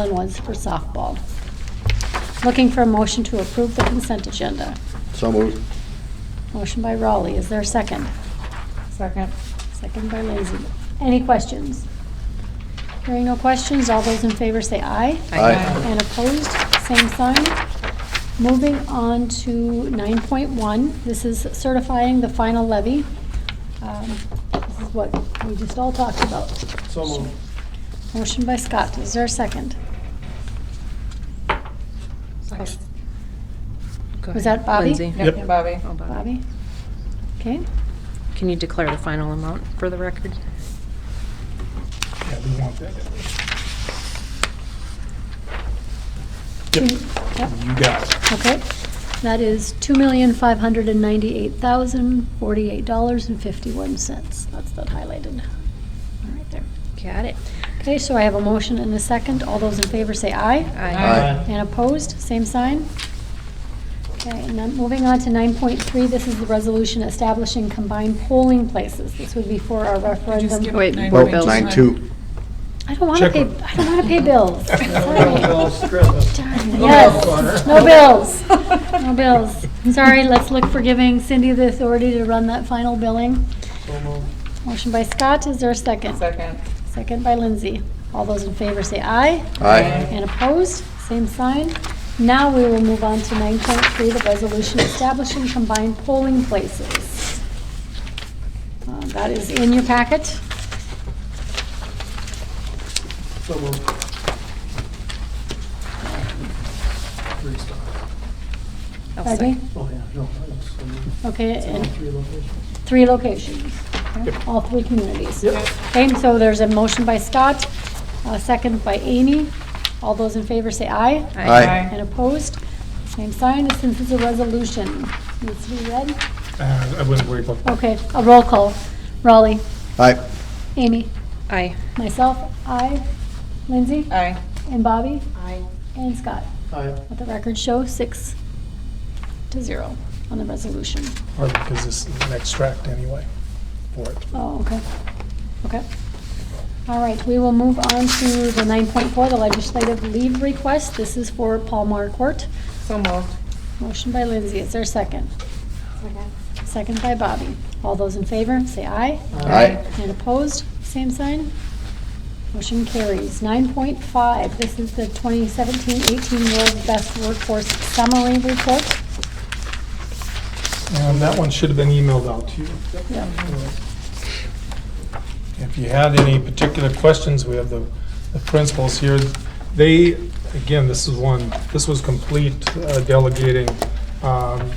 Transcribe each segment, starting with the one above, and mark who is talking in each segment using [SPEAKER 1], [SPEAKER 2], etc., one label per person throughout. [SPEAKER 1] and one's for softball. Looking for a motion to approve the consent agenda.
[SPEAKER 2] So moved.
[SPEAKER 1] Motion by Raleigh, is there a second?
[SPEAKER 3] Second.
[SPEAKER 1] Second by Lazy. Any questions? Hearing no questions, all those in favor say aye.
[SPEAKER 2] Aye.
[SPEAKER 1] And opposed, same sign. Moving on to 9.1, this is certifying the final levy. Um, This is what we just all talked about.
[SPEAKER 4] So moved.
[SPEAKER 1] Motion by Scott, is there a second? Was that Bobby?
[SPEAKER 5] Lindsay?
[SPEAKER 4] Yep.
[SPEAKER 3] Yep, Bobby.
[SPEAKER 5] Oh, Bobby.
[SPEAKER 1] Bobby? Okay,
[SPEAKER 5] Can you declare the final amount for the record?
[SPEAKER 4] Yeah, we want that.
[SPEAKER 1] Yep.
[SPEAKER 4] You got it.
[SPEAKER 1] okay. That is $2,598,048.51. That's that highlighted. All right there.
[SPEAKER 5] Got it.
[SPEAKER 1] Okay, so I have a motion and a second. All those in favor say aye.
[SPEAKER 5] Aye.
[SPEAKER 2] Aye.
[SPEAKER 1] And opposed, same sign. Okay, and then moving on to 9.3, this is the resolution establishing combined polling places. This would be for our referendum.
[SPEAKER 5] Wait,
[SPEAKER 3] Nine
[SPEAKER 5] both
[SPEAKER 3] point
[SPEAKER 5] bills.
[SPEAKER 2] Nine two.
[SPEAKER 1] I don't want to
[SPEAKER 4] Check
[SPEAKER 1] pay,
[SPEAKER 4] one.
[SPEAKER 1] I don't want to pay bills. Sorry. Yes,
[SPEAKER 4] Yes,
[SPEAKER 1] no bills, no bills. Sorry, let's look for giving Cindy the authority to run that final billing. Motion by Scott, is there a second?
[SPEAKER 3] Second.
[SPEAKER 1] Second by Lindsay. All those in favor say aye.
[SPEAKER 2] Aye.
[SPEAKER 1] And opposed, same sign. Now we will move on to 9.3, the resolution establishing combined polling places. Uh, That is in your packet.
[SPEAKER 4] So moved. Three stars.
[SPEAKER 5] I'll
[SPEAKER 1] Pardon me?
[SPEAKER 5] second.
[SPEAKER 4] Oh, yeah, no, that's, so moved.
[SPEAKER 1] Okay,
[SPEAKER 4] It's all
[SPEAKER 1] and
[SPEAKER 4] three locations.
[SPEAKER 1] three locations, okay?
[SPEAKER 4] Yep.
[SPEAKER 1] all three communities.
[SPEAKER 4] Yep.
[SPEAKER 1] Okay, and so there's a motion by Scott, a second by Amy. All those in favor say aye.
[SPEAKER 2] Aye.
[SPEAKER 1] And opposed, same sign. Since it's a resolution, needs to be read.
[SPEAKER 4] Uh, I wasn't worried about that.
[SPEAKER 1] Okay, a roll call. Raleigh,
[SPEAKER 2] Aye.
[SPEAKER 1] Amy,
[SPEAKER 5] Aye.
[SPEAKER 1] myself, aye. Lindsay?
[SPEAKER 3] Aye.
[SPEAKER 1] And Bobby?
[SPEAKER 3] Aye.
[SPEAKER 1] And Scott.
[SPEAKER 4] Aye.
[SPEAKER 1] Let the record show six to zero on the resolution.
[SPEAKER 4] Or because this is an extract anyway for it.
[SPEAKER 1] Oh, okay, okay. All right, we will move on to the 9.4, the legislative leave request. This is for Paul Marquardt.
[SPEAKER 3] So moved.
[SPEAKER 1] Motion by Lindsay, is there a second? Second by Bobby. All those in favor, say aye.
[SPEAKER 2] Aye.
[SPEAKER 1] And opposed, same sign. Motion carries. 9.5, this is the 2017-18 World Best Workforce Summary Report.
[SPEAKER 4] And that one should have been emailed out to you.
[SPEAKER 1] Yeah.
[SPEAKER 4] If you had any particular questions, we have the the principals here. They, again, this is one, this was complete uh, delegating. Um,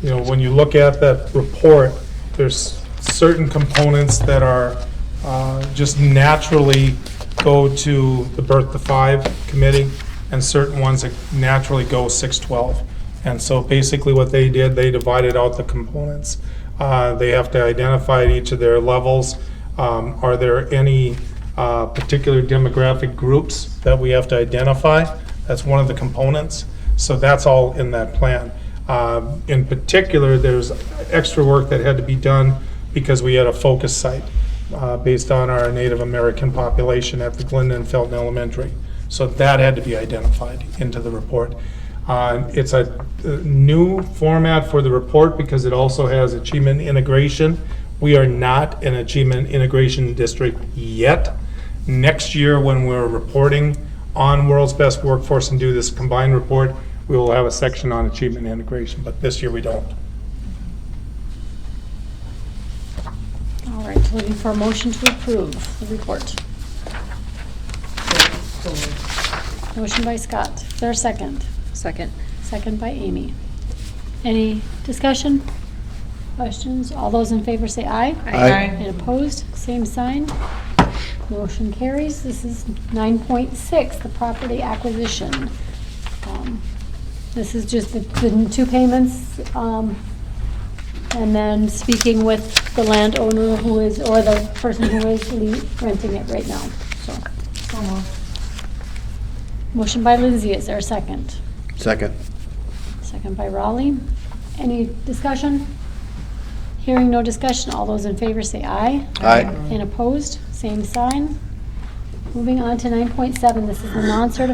[SPEAKER 4] You know, when you look at that report, there's certain components that are, uh, just naturally go to the Birth to Five Committee, and certain ones that naturally go 612. And so basically what they did, they divided out the components. Uh, They have to identify at each of their levels. Um, Are there any uh, particular demographic groups that we have to identify? That's one of the components. So that's all in that plan. Um, In particular, there's extra work that had to be done because we had a focus site uh, based on our Native American population at the Glendon Felton Elementary. So that had to be identified into the report. Uh, It's a uh, new format for the report because it also has achievement integration. We are not an achievement integration district yet. Next year, when we're reporting on World's Best Workforce and do this combined report, we will have a section on achievement integration, but this year we don't.
[SPEAKER 1] All right, looking for a motion to approve the report. Motion by Scott. Is there a second?
[SPEAKER 5] Second.
[SPEAKER 1] Second by Amy. Any discussion? Questions? All those in favor say aye.
[SPEAKER 2] Aye.
[SPEAKER 1] And opposed, same sign. Motion carries. This is 9.6, the property acquisition. Um, This is just the the two payments, um, and then speaking with the landowner who is, or the person who is le- renting it right now, so.
[SPEAKER 3] So moved.
[SPEAKER 1] Motion by Lindsay, is there a second?
[SPEAKER 2] Second.
[SPEAKER 1] Second by Raleigh. Any discussion? Hearing no discussion, all those in favor say aye.
[SPEAKER 2] Aye.
[SPEAKER 1] And opposed, same sign. Moving on to 9.7, this is the non-certified